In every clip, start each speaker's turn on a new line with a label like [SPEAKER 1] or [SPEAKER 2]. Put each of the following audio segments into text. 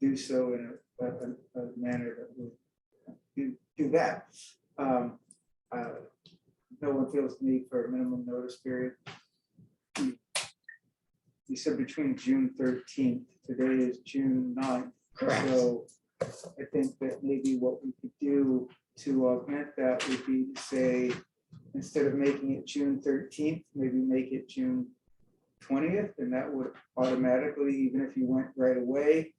[SPEAKER 1] do so in a, a, a- a manner that would do, do that. Um, uh, No one feels the need for a minimum notice period. You said between June thirteenth, today is June 9th. So I think that maybe what we could do to augment that would be to say, instead of making it June thirteenth, maybe make it June twentieth, and that would automatically, even if you went right away,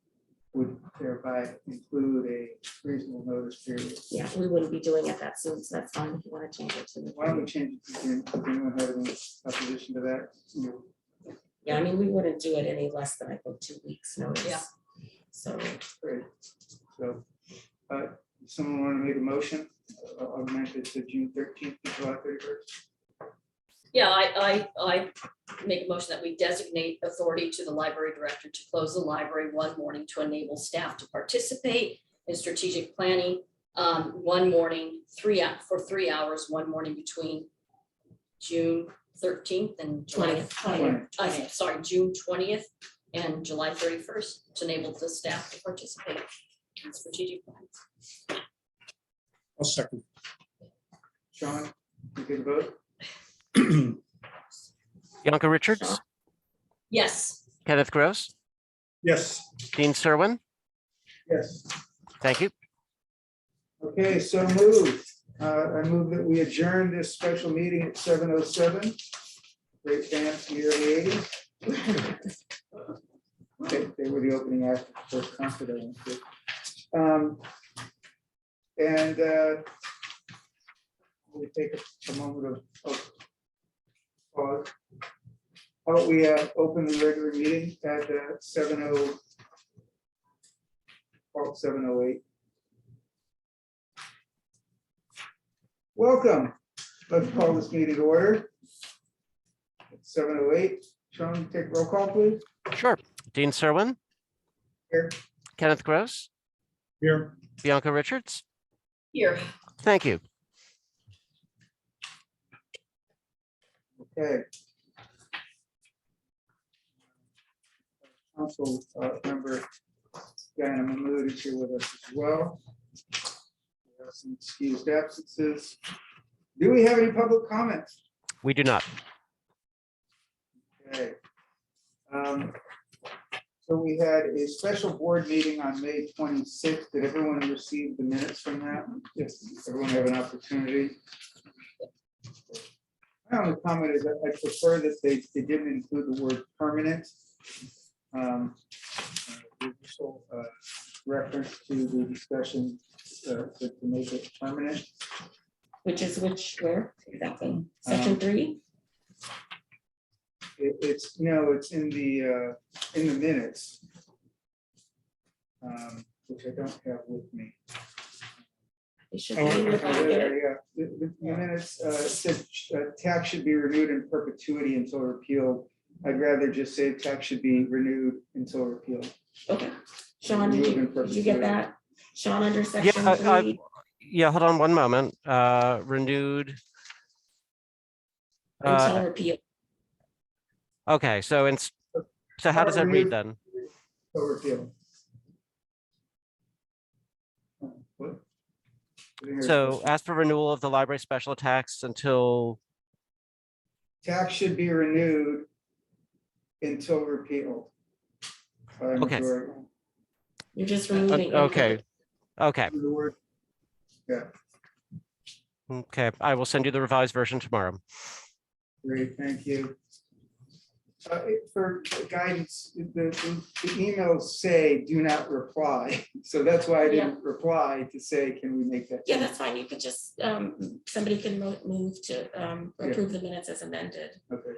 [SPEAKER 1] would thereby include a reasonable notice period.
[SPEAKER 2] Yeah, we wouldn't be doing it that soon, so that's fine if you want to change it to. the
[SPEAKER 1] Why don't we change it to June? Does anyone have any opposition to that? You
[SPEAKER 2] Yeah, I mean, we wouldn't do it any less than I think two weeks notice.
[SPEAKER 3] Yeah.
[SPEAKER 2] So
[SPEAKER 1] Great. So, uh, someone want to make a motion, uh, augment it to June thirteenth, July thirty-first?
[SPEAKER 3] Yeah, I, I, I make a motion that we designate authority to the library director to close the library one morning to enable staff to participate in strategic planning. Um, one morning, three, hou- for three hours, one morning between June thirteenth and July.
[SPEAKER 2] Twentieth.
[SPEAKER 3] I'm sorry, June twentieth and July thirty-first to enable the staff to participate in strategic plans.
[SPEAKER 4] I'll second.
[SPEAKER 1] Sean, you take a vote?
[SPEAKER 5] Bianca Richards,
[SPEAKER 3] Yes,
[SPEAKER 5] Kenneth Gross,
[SPEAKER 4] Yes,
[SPEAKER 5] Dean Serwin.
[SPEAKER 1] Yes.
[SPEAKER 5] Thank you.
[SPEAKER 1] Okay, so moved. Uh, I move that we adjourn this special meeting at seven oh seven. Great band from the early eighties. They, they were the opening act for concert. I went to. Um, And uh, we take a moment of, of pause. How about we uh, open the regular meeting at seven oh oh, seven oh eight. Welcome. Let's call this meeting to order. Seven oh eight. Sean, take roll call, please.
[SPEAKER 5] Sure. Dean Serwin.
[SPEAKER 1] Here.
[SPEAKER 5] Kenneth Gross,
[SPEAKER 4] here.
[SPEAKER 5] Bianca Richards.
[SPEAKER 3] here,
[SPEAKER 5] Thank you.
[SPEAKER 1] Okay. Council uh, member Diana Mahmood is here with us as well. We have Some excused absences. Do we have any public comments?
[SPEAKER 5] We do not.
[SPEAKER 1] Okay. Um, So we had a special board meeting on May twenty-sixth. Did everyone receive the minutes from that? Yes. Everyone have an opportunity? My only comment is that I prefer that they, they didn't include the word permanent. Um, uh, the initial, uh, Reference to the discussion uh, to to make it permanent.
[SPEAKER 2] which is which, where exactly? Section
[SPEAKER 1] Um,
[SPEAKER 2] three?
[SPEAKER 1] It, it's, no, it's in the, uh, in the minutes. Um, which I don't have with me.
[SPEAKER 2] It should be
[SPEAKER 1] Oh,
[SPEAKER 2] in your
[SPEAKER 1] okay,
[SPEAKER 2] packet.
[SPEAKER 1] there, Yeah, the, the- the minutes, uh, said, uh, tax should be renewed in perpetuity until repealed. I'd rather just say tax should be renewed until repealed.
[SPEAKER 2] Okay. Sean, did you, did you get that? Sean, under section
[SPEAKER 5] I- I-
[SPEAKER 2] three?
[SPEAKER 5] Yeah, hold on one moment. Uh, renewed. Uh,
[SPEAKER 1] uh,
[SPEAKER 2] Until repeal.
[SPEAKER 5] okay, so it's, so how does that read then?
[SPEAKER 1] Until repealed. Oh, What?
[SPEAKER 5] So ask for renewal of the library special tax until,
[SPEAKER 1] Tax should be renewed until repealed. by
[SPEAKER 5] Okay.
[SPEAKER 1] majority.
[SPEAKER 2] You're just
[SPEAKER 5] uh,
[SPEAKER 2] removing.
[SPEAKER 5] okay. Okay,
[SPEAKER 1] The word
[SPEAKER 5] okay. I will send you the revised version tomorrow.
[SPEAKER 1] Great, thank you. Uh, it- For guidance, the, the the emails say do not reply, so that's why I didn't reply to say, can we make that?
[SPEAKER 2] Yeah,
[SPEAKER 1] change?"
[SPEAKER 2] that's fine. You could just, um, somebody can mo- move to, um,
[SPEAKER 1] Yeah.
[SPEAKER 2] approve the minutes as amended
[SPEAKER 1] Okay,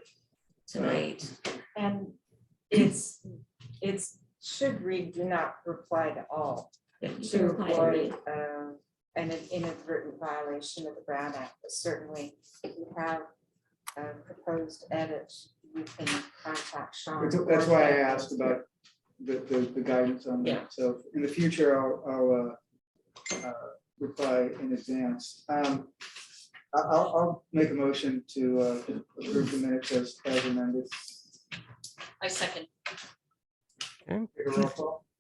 [SPEAKER 2] tonight.
[SPEAKER 6] And it's, it's, should read, do not reply to all.
[SPEAKER 2] Yeah, you
[SPEAKER 6] To
[SPEAKER 2] can reply to me.
[SPEAKER 6] avoid um, an inadvertent violation of the Brown Act, but certainly if you have uh, proposed edits, you can contact Sean.
[SPEAKER 1] That's- that's why I asked about the, the, the guidance on
[SPEAKER 2] Yeah.
[SPEAKER 1] that, so in the future, I'll, I'll uh, uh, reply in advance. Um, I- I'll, I'll make a motion to uh, approve the minutes as, as amended.
[SPEAKER 3] I second.
[SPEAKER 1] Take a roll call.